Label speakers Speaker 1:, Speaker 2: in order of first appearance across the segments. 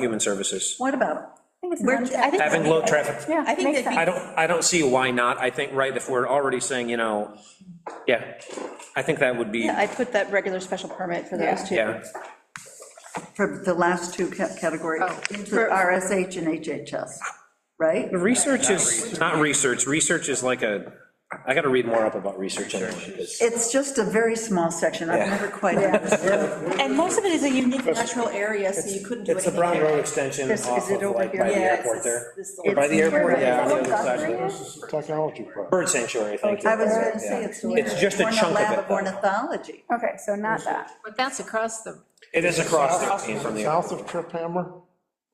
Speaker 1: human services.
Speaker 2: What about?
Speaker 3: think it's
Speaker 2: We're-
Speaker 3: non- I think-
Speaker 1: Having low traffic,
Speaker 3: Yeah,
Speaker 2: I think
Speaker 3: makes
Speaker 2: that
Speaker 3: sense.
Speaker 1: I don't, I don't see why not. I think, right, if we're already saying, you know, yeah, I think that would be,
Speaker 3: Yeah, I put that regular special permit for
Speaker 2: Yeah.
Speaker 3: those two.
Speaker 1: yeah.
Speaker 2: For the last two ca- categories, into
Speaker 3: Oh, For-
Speaker 2: RSH and HHS, right?
Speaker 1: The research is, not research, research is like a, I gotta read more up about research anyway, because
Speaker 2: It's just a very small section, I've
Speaker 1: Yeah.
Speaker 2: never quite understood.
Speaker 3: And most of it is a unique natural area, so you couldn't do
Speaker 1: it's the
Speaker 3: anything.
Speaker 1: Brown Road extension
Speaker 2: This- is
Speaker 1: off
Speaker 2: it
Speaker 1: of
Speaker 2: over
Speaker 1: like
Speaker 2: here?
Speaker 1: by the
Speaker 2: Yeah, it's-
Speaker 1: airport there.
Speaker 3: This-
Speaker 1: Or by the
Speaker 2: it's-
Speaker 1: airport, yeah, on the
Speaker 3: Is
Speaker 1: other
Speaker 3: that what
Speaker 1: side.
Speaker 3: Guthrie is?
Speaker 4: This is a technology park.
Speaker 1: Bird sanctuary, thank you.
Speaker 2: I was going to say, it's near.
Speaker 1: It's just a
Speaker 2: Cornell
Speaker 1: chunk of
Speaker 2: Lab
Speaker 1: it, though.
Speaker 2: Ornithology.
Speaker 3: Okay, so not that.
Speaker 5: But that's across the,
Speaker 1: It is across the, from the.
Speaker 4: South of Trip Hammer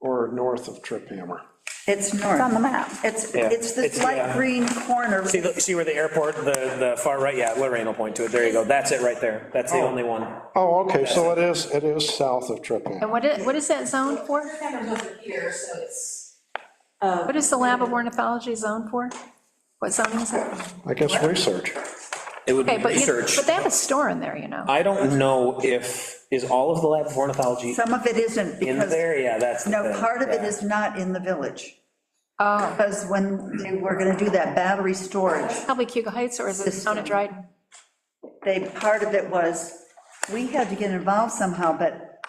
Speaker 4: or north of Trip Hammer?
Speaker 2: It's
Speaker 3: It's on the
Speaker 2: north.
Speaker 3: map.
Speaker 2: It's,
Speaker 1: Yeah.
Speaker 2: it's this
Speaker 1: It's-
Speaker 2: light
Speaker 1: yeah.
Speaker 2: green corner.
Speaker 1: See, the- see where the airport, the, the far right, yeah, Lorraine will point to it, there you go, that's it right there, that's the only one.
Speaker 4: Oh, okay, so it is, it is south of Trip Hammer.
Speaker 5: and what is, what is that zone for?
Speaker 6: over here, so it's. um,
Speaker 5: What is the lab of ornithology zone for? What zone is that?
Speaker 4: I guess research.
Speaker 1: It would be
Speaker 5: Okay, but, you-
Speaker 1: research.
Speaker 5: but they have a store in there, you know?
Speaker 1: I don't know if, is all of the lab of ornithology
Speaker 2: Some of it isn't
Speaker 1: in
Speaker 2: because,
Speaker 1: there? Yeah, that's the
Speaker 2: no,
Speaker 1: thing,
Speaker 2: part of it
Speaker 1: yeah.
Speaker 2: is not in the village.
Speaker 5: Oh,
Speaker 2: Because when they were going to do that battery storage,
Speaker 5: probably Cuba Heights, or is it down
Speaker 2: System.
Speaker 5: at Dryden?
Speaker 2: they, part of it was, we had to get involved somehow, but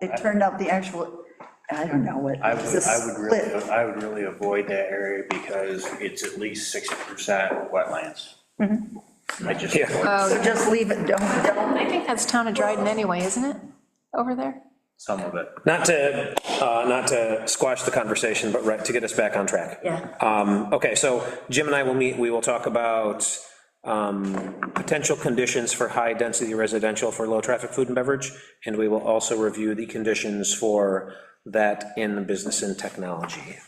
Speaker 2: it turned out the actual, I don't know what.
Speaker 7: I
Speaker 2: it was
Speaker 7: would,
Speaker 2: a
Speaker 7: I would really,
Speaker 2: split.
Speaker 7: I would really avoid that area because it's at least 60% wetlands.
Speaker 2: Mm-hmm.
Speaker 7: I just.
Speaker 2: So just leave it, don't, don't
Speaker 5: I think that's town of Dryden anyway, isn't it? Over there?
Speaker 7: Some of it.
Speaker 1: Not to, uh, not to squash the conversation, but right, to get us back on track.
Speaker 2: Yeah.
Speaker 1: Um, Okay, so Jim and I will meet, we will talk about um, potential conditions for high-density residential for low-traffic food and beverage, and we will also review the conditions for that in business and technology.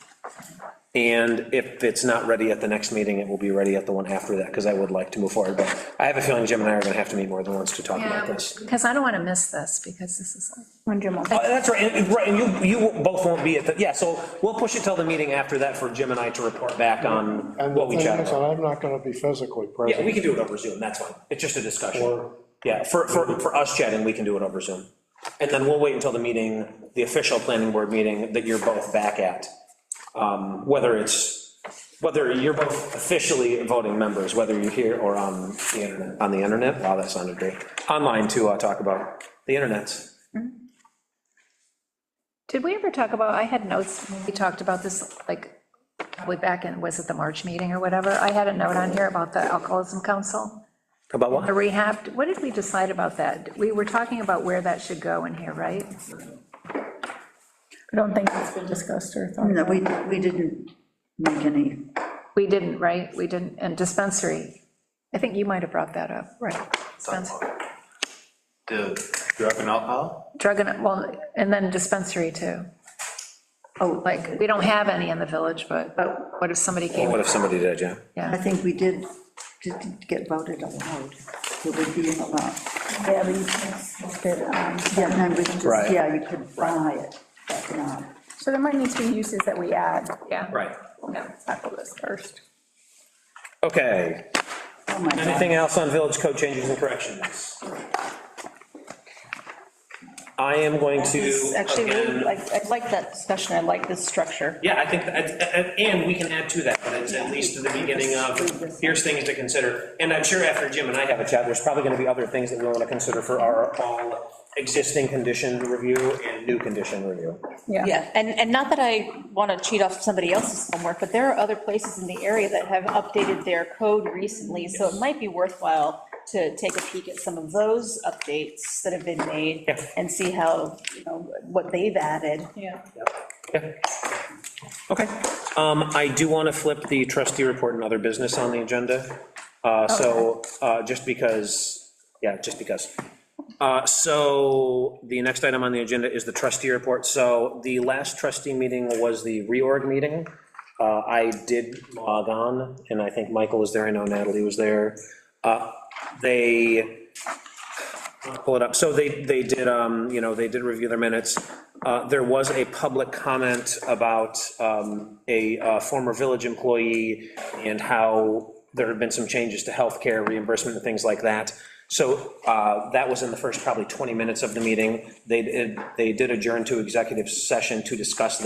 Speaker 1: And if it's not ready at the next meeting, it will be ready at the one after that, because I would like to move forward, but I have a feeling Jim and I are going to have to meet more than once to talk about this.
Speaker 5: Because I don't want to miss this, because this is,
Speaker 3: When Jim will-
Speaker 1: Uh, That's right, and- and- right, and you, you both won't be at the, yeah, so we'll push it till the meeting after that for Jim and I to report back on
Speaker 4: And the
Speaker 1: what we
Speaker 4: thing
Speaker 1: chatted
Speaker 4: is,
Speaker 1: about.
Speaker 4: I'm not going to be physically
Speaker 1: Yeah, we
Speaker 4: present.
Speaker 1: can do it over Zoom, that's fine, it's just a discussion.
Speaker 4: Or-
Speaker 1: Yeah, for, for, for us chatting, we can do it over Zoom. And then we'll wait until the meeting, the official planning board meeting that you're both back at. Um, Whether it's, whether you're both officially voting members, whether you're here or on the internet, on the internet, wow, that sounded great. Online to uh, talk about the internet.
Speaker 5: did we ever talk about, I had notes, when we talked about this, like, probably back in, was it the March meeting or whatever? I had a note on here about the Alcoholism Council.
Speaker 1: About what?
Speaker 5: A rehab, what did we decide about that? We were talking about where that should go in here, right?
Speaker 3: I don't think it's been discussed or thought.
Speaker 2: No, we, we didn't make any,
Speaker 5: We didn't, right? We didn't, and dispensary, I think you might have brought that up, right? Dispensary,
Speaker 7: The drug and alcohol?
Speaker 5: Drug and, well, and then dispensary too.
Speaker 2: oh, like,
Speaker 5: Like, we don't have any in the village, but what if somebody
Speaker 1: What
Speaker 5: came?
Speaker 1: if somebody did, yeah?
Speaker 2: I
Speaker 5: Yeah,
Speaker 2: think we did, did get voted allowed. It would be allowed.
Speaker 3: Yeah, but you can't smoke it, um,
Speaker 2: Yeah, no, we just,
Speaker 1: Right.
Speaker 2: yeah, you could buy it, but not.
Speaker 3: So there might need to be uses that we add.
Speaker 5: yeah.
Speaker 1: Right.
Speaker 3: Let's Tackle this first.
Speaker 1: Okay,
Speaker 2: Oh, my God.
Speaker 1: anything else on village code changes and corrections? I am going to,
Speaker 3: Actually, really,
Speaker 1: again,
Speaker 3: I I like that discussion, I like this structure.
Speaker 1: yeah, I think, that- and- and we can add to that, but it's at least to the beginning of, here's things to consider. And I'm sure after Jim and I have a chat, there's probably going to be other things that we want to consider for our all existing condition review and new condition review.
Speaker 3: Yeah, and, and not that I want to cheat off somebody else's homework, but there are other places in the area that have updated their code recently, so it might be worthwhile to take a peek at some of those updates that have been made
Speaker 1: Yeah.
Speaker 3: and see how, you know, what they've added. Yeah.
Speaker 1: Okay. Um, I do want to flip the trustee report and other business on the agenda. Uh, so, uh, just because, yeah, just because. Uh, so the next item on the agenda is the trustee report. So the last trustee meeting was the reorg meeting. Uh, I did log on and I think Michael was there. I know Natalie was there. Uh, they pull it up. So they, they did, um, you know, they did review their minutes. Uh, There was a public comment about um, a uh, former village employee and how there had been some changes to healthcare reimbursement and things like that. So uh, that was in the first probably 20 minutes of the meeting. They, did- they did adjourn to executive session to discuss